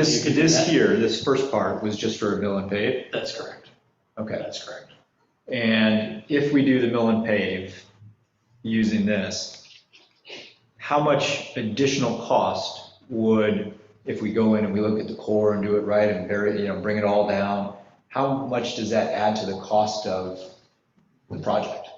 This, You can do this that. here, this first part was just for mill and pave? That's correct. Okay. That's correct. And if we do the mill and pave using this, how much additional cost would, if we go in and we look at the core and do it right and bury, you know, bring it all down, how much does that add to the cost of the project?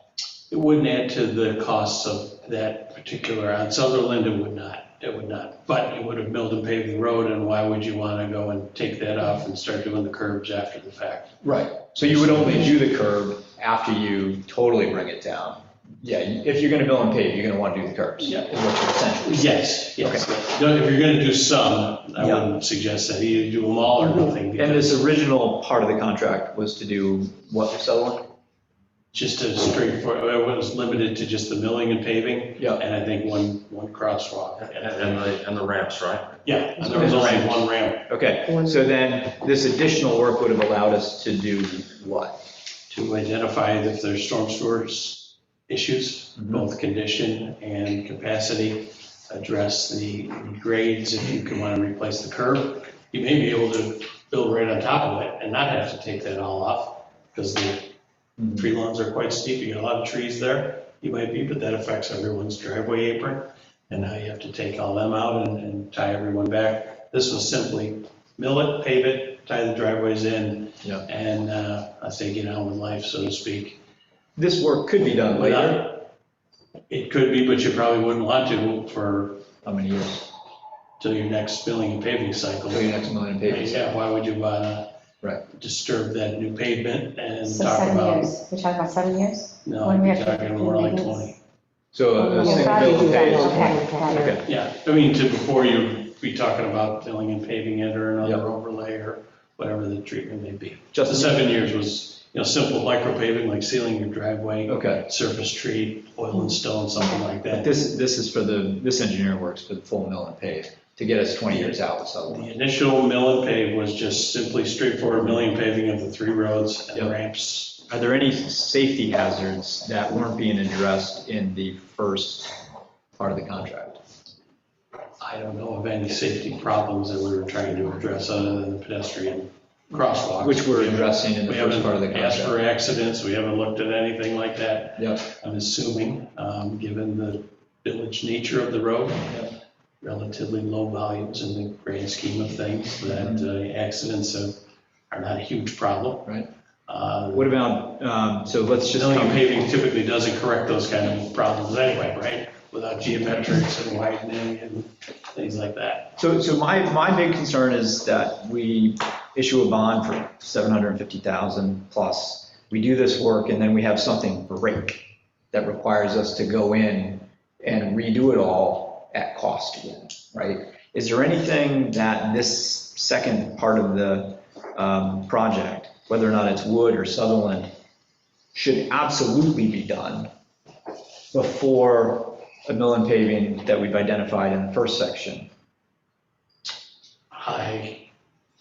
It wouldn't add to the costs of that particular, on Sutherland, it would not, it would not. But it would have milled and paved the road, and why would you want to go and take that off and start doing the curbs after the fact? Right, so you would only do the curb after you totally bring it down. Yeah, if you're gonna mill and pave, you're gonna wanna do the curbs. Yeah. Is what you're essentially. Yes, yes. No, If you're going to do some, I Yeah. wouldn't suggest that, you do them all or nothing. And this original part of the contract was to do what, Sutherland? Just a straightforward, it was limited to just the milling and paving, Yeah. and I think one, one crosswalk. And, and the, and the ramps, right? Yeah, and there was only one ramp Okay, so then this additional work would have allowed us to do what? to identify if there's storm sewers issues, both condition and capacity, address the grades, if you can want to replace the curb. You may be able to build right on top of it and not have to take that all off, because the Mhm. Tree lawns are quite steep, you got a lot of trees there, you might be, but that affects everyone's driveway apron. And now you have to take all them out and, and tie everyone back. This was simply mill it, pave it, tie the driveways in. Yeah. And, uh, I say get on with life, so to speak. This work could be done later. Without- It could be, but you probably wouldn't want to for, How many years? till your next milling and paving cycle. Till your next million pages. Yeah, why would you wanna Right. disturb that new pavement and So talk seven about? years, we're talking about seven years? No, I'd When we be have to talking do more like maintenance? twenty. So a You'll single probably bill do of that pay. on is- a pack, pack. Okay, Yeah, I mean, to before you be talking about filling and paving it or Yeah. another overlay or whatever the treatment may be. But The Justin, seven years was, you know, simple micro paving, like sealing your driveway, okay. surface treat, oil and stone, something like But that. this, this is for the, this engineer works for the full mill and pave to get us 20 years out with Sutherland. The initial mill and pave was just simply straightforward milling and paving of the three roads and Yeah. ramps. Are there any safety hazards that weren't being addressed in the first part of the contract? I don't know of any safety problems that we were trying to address other than the pedestrian crosswalk. Which we're addressing in the We first haven't part of the contract. asked for accidents, we haven't looked at anything like that. Yep. I'm assuming, um, given the village nature of the road, relatively low volumes in the grand scheme of things, that uh, accidents are- are not a huge problem. Mm-hmm. Right. Uh, What about, um, so let's just. Resilient paving typically doesn't correct those kind of problems anyway, right? Without geometrics and widening and things like that. So, so my, my big concern is that we issue a bond for 750,000 plus. We do this work and then we have something break that requires us to go in and redo it all at cost again, right? Is there anything that this second part of the um, project, whether or not it's Wood or Sutherland, should absolutely be done before a mill and paving that we've identified in the first section? I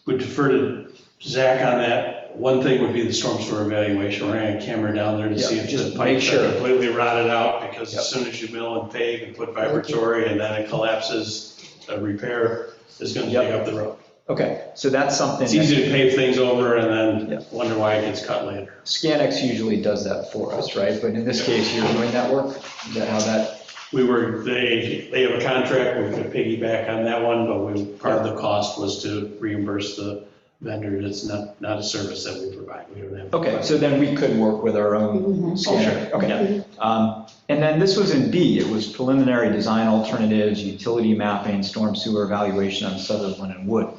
would defer to Zach on that. One thing would be the storm sewer evaluation. We're gonna have a camera down there to Yeah, see if just the make pipes sure. are completely rotted out, because Yep. as soon as you mill and pave and put vibratory and then it collapses, a repair is gonna Yep. dig up the road. Okay, so that's something, It's easy that to pave things over and Yeah. then wonder why it gets cut later. Scanx usually does that for us, right? But in this case, you're doing that work, Is that how that, We were, they, they have a contract, we're gonna piggyback on that one, but we, part of the cost was to reimburse the vendor. It's not, not a service that we provide. We don't have. okay, so then we could work with our own scanner. Okay. Um, And then this was in B, it was preliminary design alternatives, utility mapping, storm sewer evaluation on Sutherland and Wood.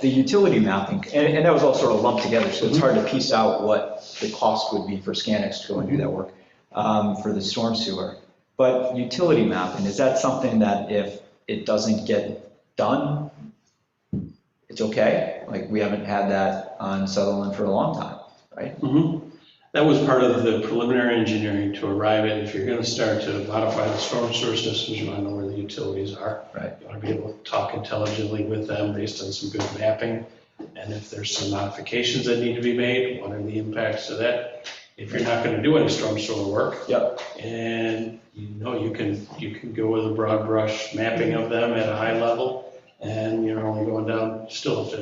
The utility mapping, and, and that was all sort of lumped together, so it's hard to piece out what the cost would be for Scanx to go and do that work um, for the storm sewer. But utility mapping, is that something that if it doesn't get done, it's okay? Like, we haven't had that on Sutherland for a long time, right? Mhm. That was part of the preliminary engineering to arrive at, if you're gonna start to modify the storm sewer systems, you wanna know where the utilities are. Right. You wanna be able to talk intelligently with them based on some good mapping. And if there's some modifications that need to be made, what are the impacts to that? If you're not gonna do any storm sewer work, Yep. and you know, you can, you can go with a broad brush mapping of them at a high level and you're only going down still to